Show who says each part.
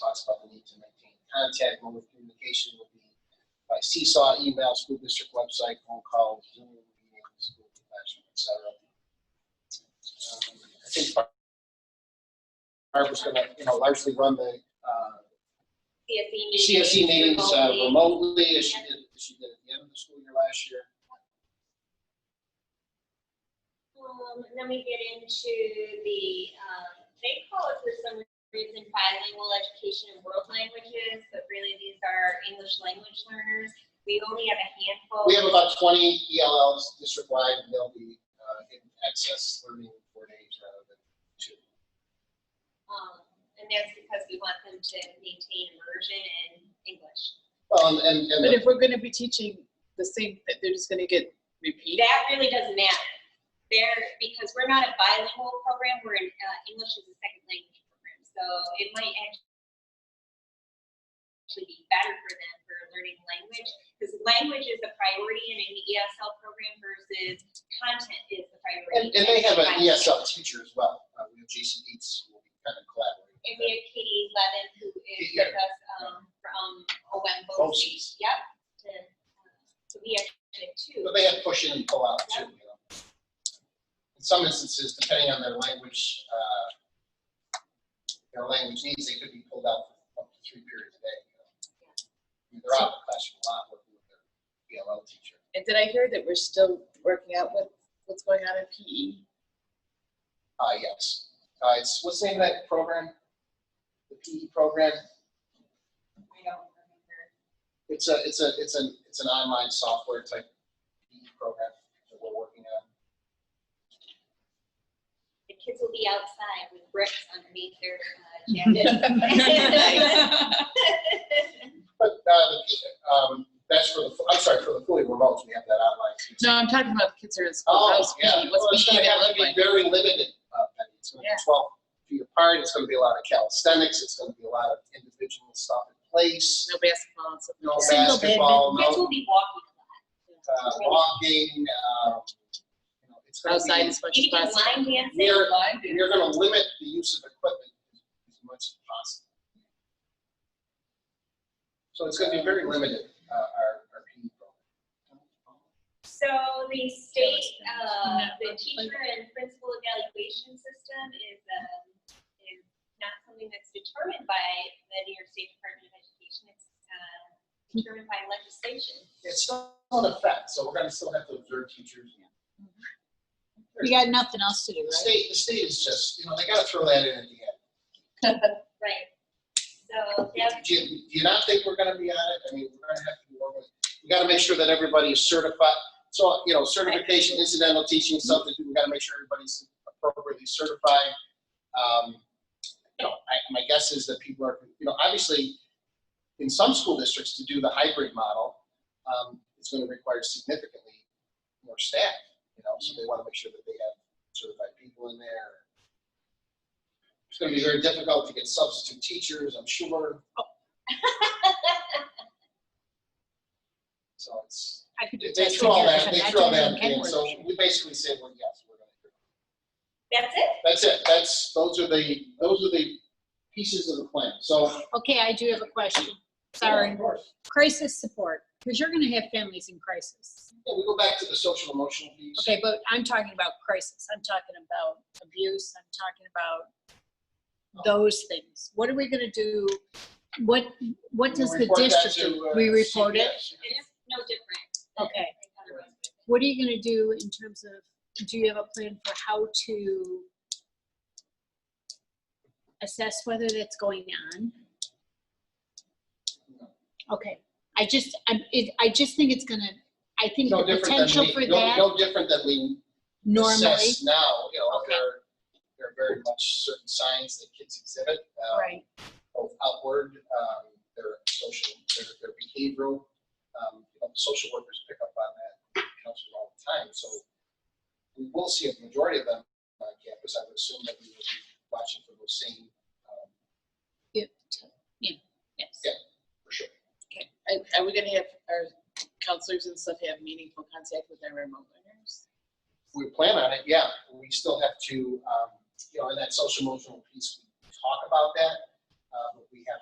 Speaker 1: talks about the need to maintain contact, mode of communication will be by seesaw, email, school district website, phone calls, Zoom meetings, school classroom, et cetera. Um, I think Bar- Barbara's gonna, you know, largely run the, uh,
Speaker 2: CSE meetings.
Speaker 1: CSE meetings uh,
Speaker 2: remotely.
Speaker 1: remotely, as she did, as she did at the end of the school year last year.
Speaker 2: Um, and then we get into the, um, they call it for some reason bilingual education in world languages, but really these are English language learners. We only have a handful.
Speaker 1: We have about twenty ELLs district-wide, and they'll be uh, in access learning four days rather than two.
Speaker 2: Um, and that's because we want them to maintain immersion in English.
Speaker 1: Well, Um, and, and, and
Speaker 3: But if we're gonna be teaching the same, that they're just gonna get repeated.
Speaker 2: That really doesn't matter. There, because we're not a bilingual program, we're an, uh, English as a second language program, so it might act- actually be better for them for learning language, because language is a priority in an ESL program versus content is the priority.
Speaker 1: and they have an E
Speaker 2: Content.
Speaker 1: ESL teacher as well, uh, we have JC Eats, who will be kind of collaborating.
Speaker 2: And we have Katie Levin, who is
Speaker 1: Yeah. Oh,
Speaker 2: with us, um, from Owembo.
Speaker 1: Bosse's.
Speaker 2: Yep. to- So we actually have two.
Speaker 1: But they have push in and pull out too, you know. In some instances, depending on their language, uh, their language needs, they could be pulled out for up to three periods a day, you know. I mean, They're out of the classroom a lot working with their ELL teacher.
Speaker 3: And did I hear that we're still working out what, what's going on in E? PE?
Speaker 1: Uh, yes. Uh, it's, what's the name of that program? The PE program?
Speaker 2: I don't remember.
Speaker 1: It's a, it's a, it's an, it's an online software type PE program that we're working on.
Speaker 2: The kids will be outside with bricks underneath their uh, jackets. Right,
Speaker 1: But, uh, the, P- um, that's for the, I'm sorry, for the fully remote, we have that online. too.
Speaker 3: No, I'm talking about the kids who are in school.
Speaker 1: Oh,
Speaker 3: How's PE?
Speaker 1: yeah, well,
Speaker 3: What's
Speaker 1: it's
Speaker 3: PE
Speaker 1: gonna
Speaker 3: gonna
Speaker 1: have to
Speaker 3: look
Speaker 1: be
Speaker 3: like?
Speaker 1: very limited, uh, Penny. it's gonna
Speaker 3: Yeah.
Speaker 1: be twelve feet apart, it's gonna be a lot of calisthenics, it's gonna be a lot of individual stuff in place,
Speaker 3: No basketball and stuff.
Speaker 1: no
Speaker 3: Single bed.
Speaker 1: basketball, no,
Speaker 2: Kids will be walking a lot.
Speaker 1: uh, walking, um, you know, it's gonna
Speaker 3: Outside
Speaker 1: be.
Speaker 3: as much
Speaker 2: You
Speaker 3: as
Speaker 2: can do
Speaker 3: possible.
Speaker 2: line dancing.
Speaker 1: You're, you're gonna limit the use of equipment as much as possible. So it's gonna be very limited, uh, our, our PE program.
Speaker 2: So the state, uh, the teacher and principal evaluation system is, um, is not something that's determined by the New York State Department of Education. It's, uh, determined by legislation.
Speaker 1: It's still in effect, so we're gonna still have to observe teachers.
Speaker 4: We got nothing else to do,
Speaker 1: The
Speaker 4: right?
Speaker 1: state, the state is just, you know, they gotta throw that in at the end.
Speaker 2: Right. So that's
Speaker 1: Do you, do you not think we're gonna be on it? I mean, we're gonna have to be working. We gotta make sure that everybody is certified. So, you know, certification, incidental teaching, something, we gotta make sure everybody's appropriately certified. Um, You know, I, my guess is that people are, you know, obviously, in some school districts, to do the hybrid model, um, it's gonna require significantly more staff, you know, so they wanna make sure that they have certified people in there. It's gonna be very difficult to get substitute teachers, I'm sure. So it's,
Speaker 4: I could
Speaker 1: they
Speaker 4: do
Speaker 1: they
Speaker 4: testing
Speaker 1: threw all
Speaker 4: here,
Speaker 1: that,
Speaker 4: but
Speaker 1: they
Speaker 4: I
Speaker 1: threw all
Speaker 4: don't
Speaker 1: that,
Speaker 4: think
Speaker 1: in. so
Speaker 4: anyone-
Speaker 1: we basically said, well, yes, we're gonna do it.
Speaker 2: That's it.
Speaker 1: That's it, that's, those are the, those are the pieces of the plan, so.
Speaker 4: Okay, I do have a question. Sorry.
Speaker 1: Of course.
Speaker 4: Crisis support, because you're gonna have families in crisis.
Speaker 1: Yeah, we go back to the social emotional piece.
Speaker 4: Okay, but I'm talking about crisis. I'm talking about abuse. I'm talking about those things. What are we gonna do? What, what
Speaker 1: We
Speaker 4: does the
Speaker 1: report that
Speaker 4: district
Speaker 1: to,
Speaker 4: do?
Speaker 1: uh,
Speaker 4: We report it?
Speaker 1: CPS.
Speaker 2: It's no different.
Speaker 4: Okay.
Speaker 2: Otherwise,
Speaker 4: What are you gonna do in terms of, do you have a plan for how to assess whether that's going on? Okay, I just, I, it, I just think it's gonna, I think
Speaker 1: No
Speaker 4: the
Speaker 1: different than
Speaker 4: potential for
Speaker 1: we, no,
Speaker 4: that
Speaker 1: no different than we
Speaker 4: normally,
Speaker 1: assess now, you know,
Speaker 4: Okay.
Speaker 1: there, are- there are very much certain signs that kids exhibit. um,
Speaker 4: right?
Speaker 1: both outward, um, their social, their, their behavioral. Um, you know, social workers pick up on that, counselors all the time, so we will see a majority of them on campus. I would assume that we will be watching for those same, um,
Speaker 4: Yeah, yeah, yes.
Speaker 1: Yeah. for sure.
Speaker 3: Are- Are we gonna have our counselors and stuff have meaningful contact with our remote learners?
Speaker 1: we plan on it, yeah, we still have to, um, you know, in that social emotional piece, we talk about that. Uh, but we have